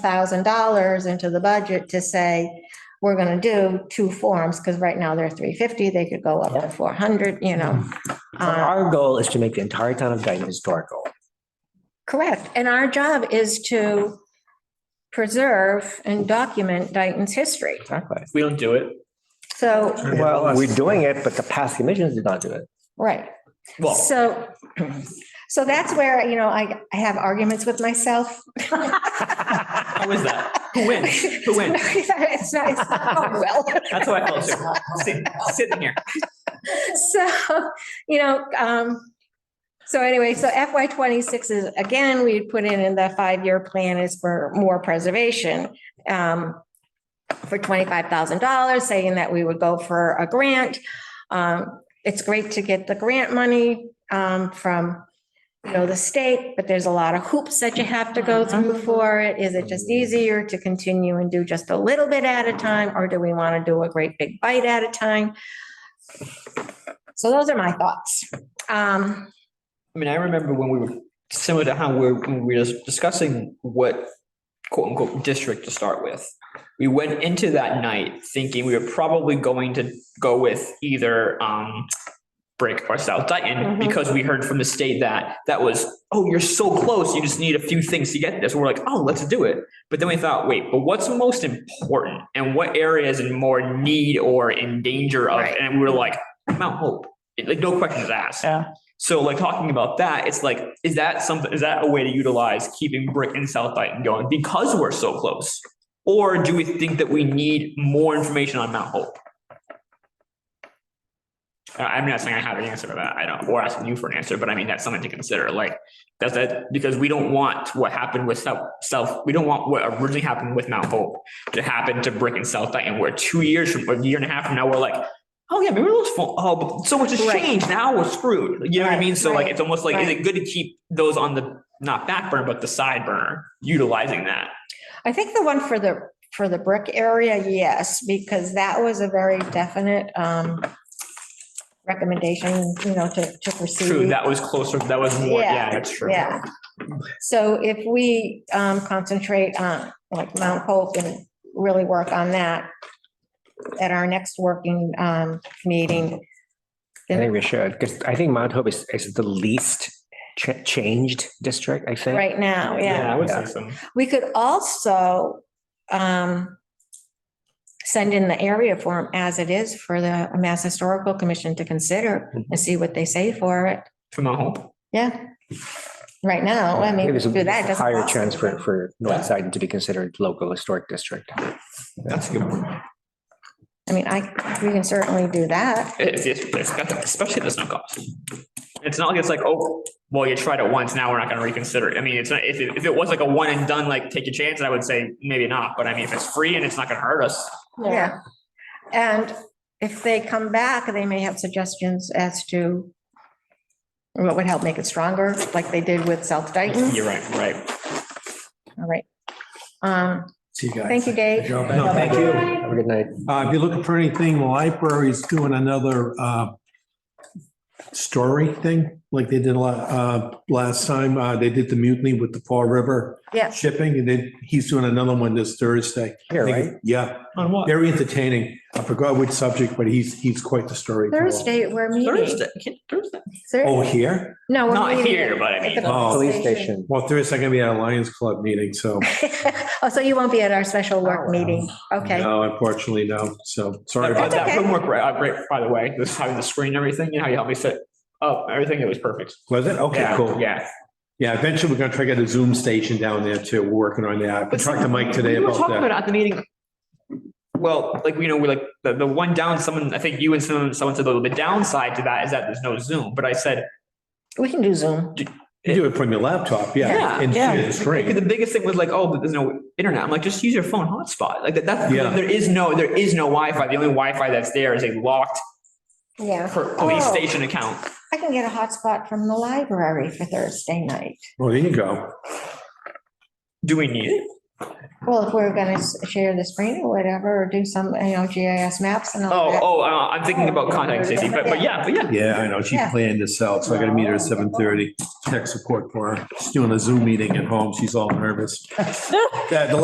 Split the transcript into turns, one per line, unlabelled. thousand dollars into the budget to say, we're gonna do two forms, because right now they're three fifty, they could go up
Yeah.
to four hundred, you know.
Mm-hmm.
Uh,
Our goal is to make the entire town of Dayton historical.
Correct, and our job is to preserve and document Dayton's history.
Exactly.
If we don't do it,
So,
Well, we're doing it, but the past commissions did not do it.
right,
well,
so, so that's where, you know, I, I have arguments with myself.
how is that? Who wins? Who wins?
It's not, it's not going well.
That's what I felt too. Sit- Sitting here.
So, you know, um, so anyway, so FY twenty-six is, again, we put in in the five-year plan is for more preservation. Um, for twenty-five thousand dollars, saying that we would go for a grant. Um, it's great to get the grant money, um, from, you know, the state, but there's a lot of hoops that you have to go through for it. Is it just easier to continue and do just a little bit at a time, or do we want to do a great big bite at a time? So those are my thoughts. Um,
I mean, I remember when we were similar to how we're, when we were discussing what quote unquote district to start with. We went into that night thinking we were probably going to go with either um Brick or South Dayton
Mhm.
because we heard from the state that that was, oh, you're so close. You just need a few things to get this. We're like, oh, let's do it. But then we thought, wait, but what's most important and what area is in more need or in danger of?
Right.
And we were like, Mount Hope. Like no questions asked.
Yeah.
So like talking about that, it's like, is that something, is that a way to utilize keeping Brick and South Dayton going because we're so close? Or do we think that we need more information on Mount Hope? I- Uh, I'm not saying I have an answer to that. I don't, or asking you for an answer, but I mean, that's something to consider. Like, that's that, because we don't want what happened with South, South, we don't want what originally happened with Mount Hope to happen to Brick and South Dayton, where two years from, a year and a half from now, we're like, oh yeah, maybe we're those, oh, but so much has
Right.
changed. Now we're screwed. You know what I mean? So like,
Right.
it's almost like, is it good to keep those on the, not back burner, but the side burner, utilizing that?
I think the one for the, for the brick area, yes, because that was a very definite, um, recommendation, you know, to, to
True,
proceed.
that was closer, that was more,
Yeah,
yeah, that's true.
Yeah. So if we, um, concentrate on like Mount Hope and really work on that at our next working, um, meeting.
I think we should, because I think Mount Hope is, is the least cha- changed district, I think.
Right now, yeah.
I would say
Yeah.
so.
We could also um, send in the area form as it is for the Mass Historical Commission to consider
Mm-hmm.
and see what they say for it.
From Mount Hope.
Yeah. Right now, I mean,
It was a
do that. it doesn't
Higher
cost
chance for,
anything.
for North Dayton to be considered local historic district.
That's a good one.
I mean, I, we can certainly do that.
It's, it's, it's got that, especially this no cost. It's not like it's like, oh, well, you tried it once, now we're not gonna reconsider it. I mean, it's not, if, it- if it was like a one and done, like take a chance, I would say maybe not, but I mean, if it's free and it's not gonna hurt us.
Yeah. And if they come back, they may have suggestions as to what would help make it stronger, like they did with South Dayton.
You're right, right.
All right. Um,
See you guys.
Thank you, Dave.
Uh,
thank you. Have a good night.
if you're looking for anything, the library's doing another, uh, story thing, like they did a lot, uh, last time, uh, they did the mutiny with the Fall River
Yeah.
shipping, and then he's doing another one this Thursday.
Here, right?
Yeah,
On what?
very entertaining. I forgot which subject, but he's, he's quite the storyteller.
Thursday, we're meeting.
Thursday, Thursday.
Thir-
Oh, here?
No. we're
Not
meeting
here,
at-
but I
at
mean-
the
Oh.
Police station.
Well, Thursday, I'm gonna be at a Lions Club meeting, so,
Oh, so you won't be at our special work meeting? Okay.
no, unfortunately, no, so, sorry.
That
about
That's
that
okay.
homework, right, uh, great, by the way, this, having the screen and everything, you know, how you helped me set up everything, it was perfect.
Was it? Okay,
Yeah,
cool.
Yeah.
Yeah, eventually we're gonna try to get a Zoom station down there too. We're working on that. I talked to Mike
We
today
were
about
talking
that.
about it at the meeting. Well, like, you know, we're like, the, the one down, someone, I think you and someone, someone said, "Oh, the downside to that is that there's no Zoom, but I said,
We can do Zoom.
You do it from your laptop, yeah.
Yeah,
and
yeah.
share the
Because the
screen.
biggest thing was like, oh, but there's no internet. I'm like, just use your phone hotspot. Like that, that's
Yeah.
there is no there is no Wi-Fi. The only Wi-Fi that's there is a locked
Yeah.
per- police
Oh.
station account.
I can get a hotspot from the library for Thursday night.
Well, there you go.
Do we need it?
Well, if we're going to share the screen or whatever, or do some, you know, GIS maps and all
Oh,
that.
oh, uh, I'm thinking about contacting Stacy, but but yeah, but yeah.
Yeah, I know. She
Yeah.
planned this out, so I gotta meet her at seven thirty. Tech support for her. She's doing a Zoom meeting at home. She's all nervous. Yeah, the